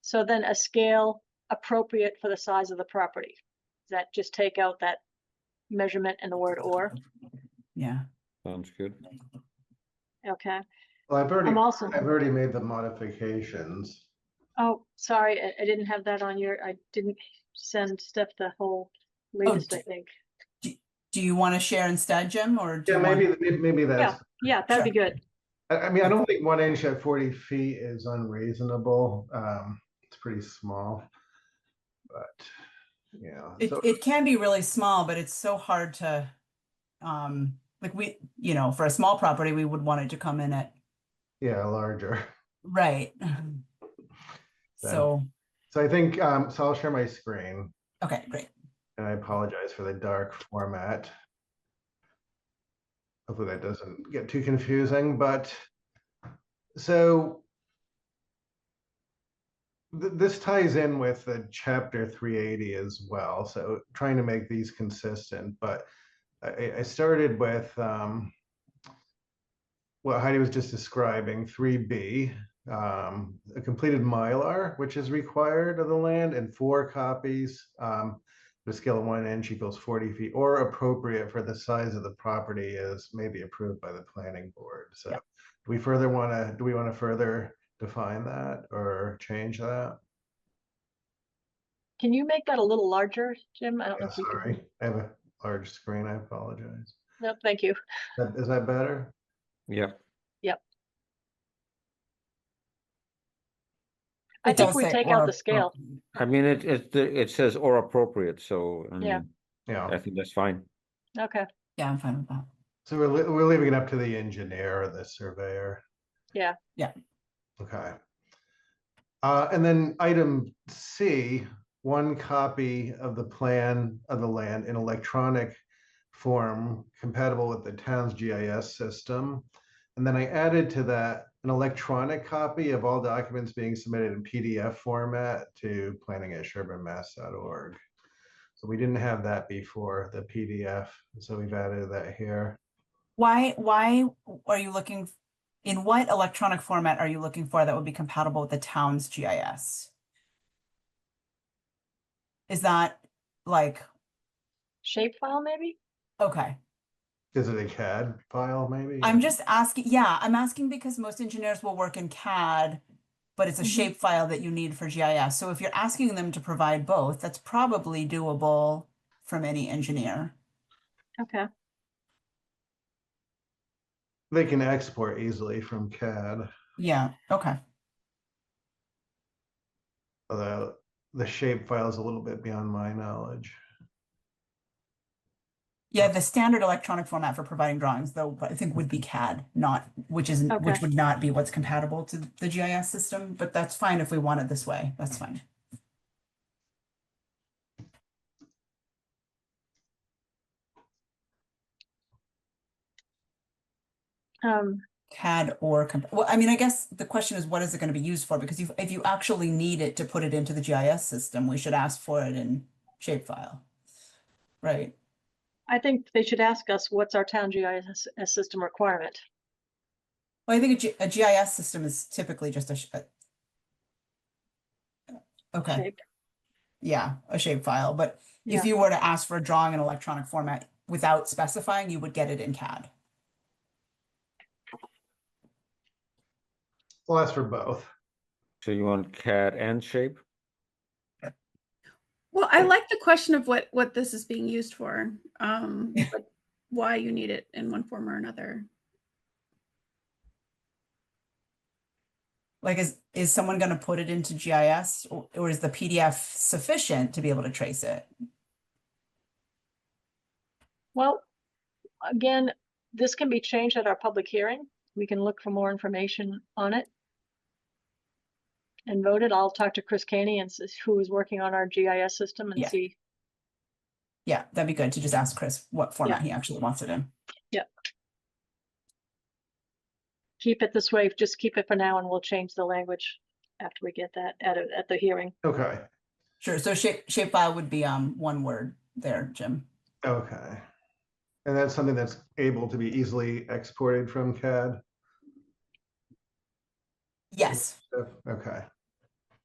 So then a scale appropriate for the size of the property. Does that just take out that measurement and the word or? Yeah, Sounds good. Okay, Well, I've already, I'm also, I've already made the modifications. oh, sorry, I, I didn't have that on your, I didn't send Steph the whole latest, I d- think. do you want to share instead, Jim, or? do Yeah, you want- maybe, maybe that's, Yeah, that'd be good. I, I mean, I don't think one inch at forty feet is unreasonable. Um, it's pretty small. But, yeah, It, so, it can be really small, but it's so hard to, um, like we, you know, for a small property, we would want it to come in at, yeah, larger. right? So, So I think, um, so I'll share my screen okay, great. and I apologize for the dark format. Hopefully that doesn't get too confusing, but so th- this ties in with the chapter three eighty as well, so trying to make these consistent, but I, I started with um what Heidi was just describing, three B, um, a completed Mylar, which is required of the land, and four copies. Um, the scale of one inch equals forty feet, or appropriate for the size of the property is maybe approved by the planning board, so. Yeah. Do we further wanna, do we wanna further define that or change that? Can you make that a little larger, Jim? I don't know Yeah, if we can. Sorry, I have a large screen, I apologize. No, thank you. That- Is that better? Yep. I It think does we say take or oh, out the scale. appropriate. I mean, it, it, it says or appropriate, so, I Yeah. mean, Yeah. I think that's fine. Okay, Yeah, I'm fine with that. So we're, li- we're leaving it up to the engineer or the surveyor? Yeah. Yeah. Okay. Uh, and then item C, one copy of the plan of the land in electronic form compatible with the town's GIS system. And then I added to that an electronic copy of all documents being submitted in PDF format to planning@sherburnemass.org. So we didn't have that before, the PDF, so we've added that here. Why, why are you looking, in what electronic format are you looking for that would be compatible with the town's GIS? Is that like, shapefile maybe? okay, Is it a CAD file, maybe? I'm just asking, yeah, I'm asking because most engineers will work in CAD, but it's a Mhm. shapefile that you need for GIS. So if you're asking them to provide both, that's probably doable from any engineer. Okay, They can export easily from CAD, Yeah, okay, although the shape file is a little bit beyond my knowledge. yeah, the standard electronic format for providing drawings, though, I think would be CAD, not, which isn't, Okay. which would not be what's compatible to the GIS system, but that's fine if we want it this way, that's fine. um, CAD or, comp- well, I mean, I guess the question is, what is it going to be used for? Because if, if you actually need it to put it into the GIS system, we should ask for it in shapefile. Right? I think they should ask us, what's our town GIS system requirement? Well, I think a, G- a GIS system is typically just a, sh- a- okay, shape? yeah, a shapefile, but Yeah. if you were to ask for a drawing in electronic format without specifying, you would get it in CAD. Well, that's for both. So you want CAD and shape? Well, I like the question of what, what this is being used for, um, like why you need it in one form or another. Like, is, is someone going to put it into GIS or, or is the PDF sufficient to be able to trace it? Well, again, this can be changed at our public hearing. We can look for more information on it. And vote it. I'll talk to Chris Caney and s- who is working on our GIS system and Yeah. see. Yeah, that'd be good to just ask Chris what format he actually wants it in. Keep it this way, just keep it for now and we'll change the language after we get that at, a- at the hearing. Okay, Sure, so shape, shapefile would be um one word there, Jim. okay. And that's something that's able to be easily exported from CAD? Yes, Okay,